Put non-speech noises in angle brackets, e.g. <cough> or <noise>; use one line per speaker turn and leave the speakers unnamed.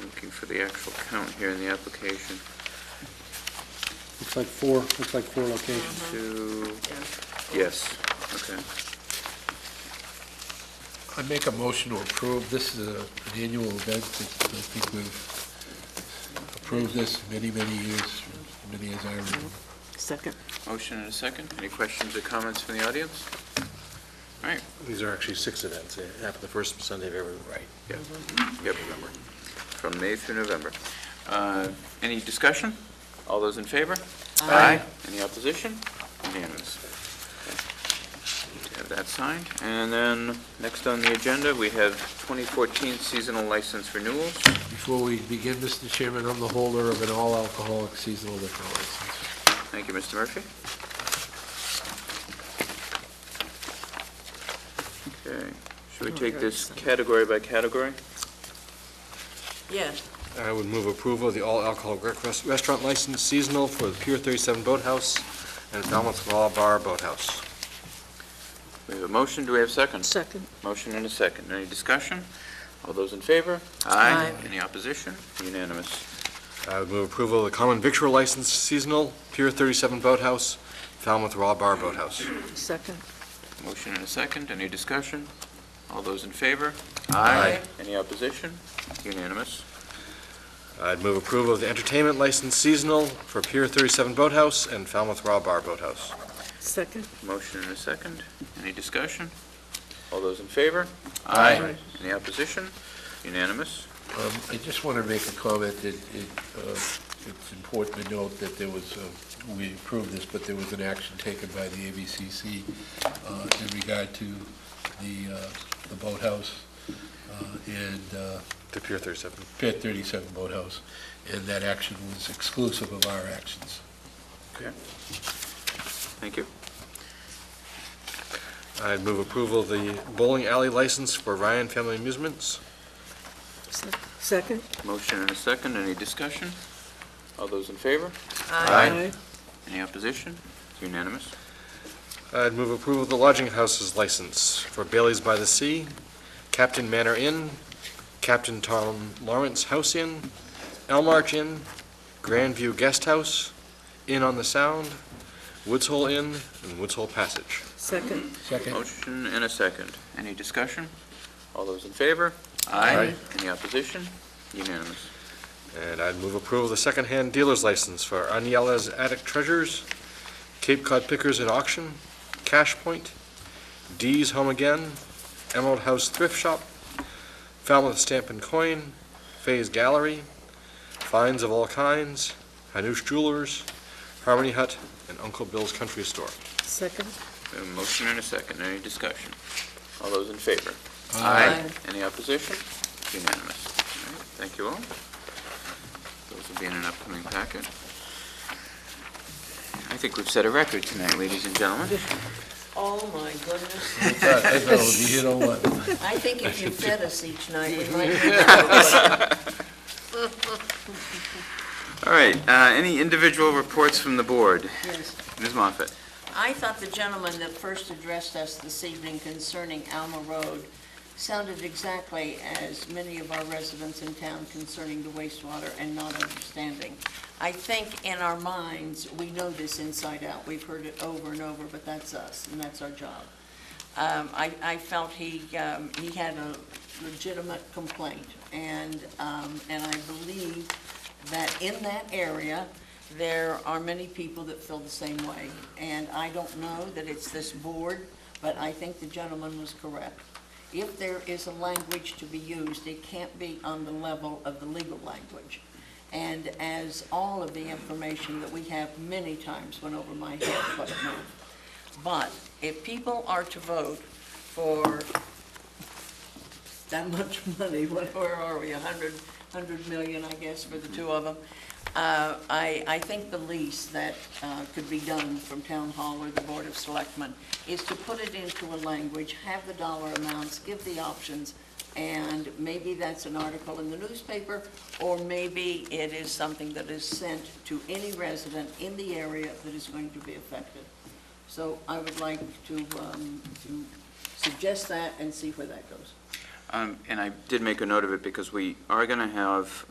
looking for the actual count here in the application.
Looks like four, looks like four locations.
Two, yes, okay.
I make a motion to approve, this is a- an annual event, that I think we've approved this many, many years, many as I remember.
Second.
Motion and a second. Any questions or comments from the audience?
These are actually six events, They happen the first Sunday of every, right,
Yep,
November.
from May through November. Uh, Any discussion? All those in favor? Any opposition? Unanimous. Okay, Have that signed. And then, next on the agenda, we have 2014 seasonal license renewals.
Before we begin, Mr. Chairman, I'm the holder of an all-alcoholic seasonal liquor license.
Thank you, Mr. Murphy. Okay, should we take this category by category?
Yeah,
I would move approval of the all alcohol rec- rest- restaurant license seasonal for the Pier 37 Boathouse and Falmouth Law Bar Boathouse.
We have a motion, do we have a second?
second.
Motion and a second. Any discussion? All those in favor?
Aye.
Any opposition? Unanimous.
I would move approval of the common victual license seasonal, Pier 37 Boathouse, Falmouth Law Bar Boathouse.
Second.
Motion and a second. Any discussion? All those in favor?
Aye.
Any opposition? Unanimous.
I'd move approval of the entertainment license seasonal for Pier 37 Boathouse and Falmouth Law Bar Boathouse.
Second.
Motion and a second. Any discussion? All those in favor?
Aye.
Any opposition? Unanimous.
Um, I just want to make a comment that it, uh, it's important to note that there was, uh, we approved this, but there was an action taken by the ABCC uh, in regard to the uh, the boathouse uh, and uh,
To Pier 37.
Pier 37 boathouse, and that action was exclusive of our actions.
Thank you.
I'd move approval of the bowling alley license for Ryan Family Amusements.
Second.
Motion and a second. Any discussion? All those in favor?
Aye.
Any opposition? Unanimous.
I'd move approval of the lodging houses license for Bailey's by the Sea, Captain Manor Inn, Captain Tom Lawrence House Inn, Elmarch Inn, Grandview Guest House, Inn on the Sound, Woods Hole Inn, and Woods Hole Passage.
Second.
Second?
Motion and a second. Any discussion? All those in favor?
Aye.
Any opposition? Unanimous.
And I'd move approval of the secondhand dealer's license for Aniela's Attic Treasures, Cape Cod Pickers and Auction, Cash Point, Dee's Home Again, Emerald House Thrift Shop, Falmouth Stamp and Coin, Faye's Gallery, Finds of All Kinds, Hanush Jewelers, Harmony Hut, and Uncle Bill's Country Store.
Second.
We have a motion and a second. Any discussion? All those in favor? Any opposition? Unanimous. All right, Thank you all. Those will be in an upcoming packet. I think we've set a record tonight, ladies and gentlemen.
Oh, my goodness.
I thought- I thought it would be hit on one.
I think if you fed us each night,
<laughs>
we might.
All right, uh, any individual reports from the board?
Yes.
Ms. Moffett?
I thought the gentleman that first addressed us this evening concerning Alma Road sounded exactly as many of our residents in town concerning the wastewater and not understanding. I think in our minds, we know this inside out. We've heard it over and over, but that's us, and that's our job. Um, I, I felt he, um, he had a legitimate complaint, and, um, and I believe that in that area, there are many people that feel the same way. And I don't know that it's this board, but I think the gentleman was correct. If there is a language to be used, it can't be on the level of the legal language. And as all of the information that we have many times went over my head, but it moved. But if people are to vote for that much money, <laughs> what- where are we, 100, 100 million, I guess, for the two of them, uh, I, I think the least that uh, could be done from Town Hall or the Board of Selectmen is to put it into a language, have the dollar amounts, give the options, and maybe that's an article in the newspaper, or maybe it is something that is sent to any resident in the area that is going to be affected. So I would like to, um, to suggest that and see where that goes.
Um, And I did make a note of it because we are going to have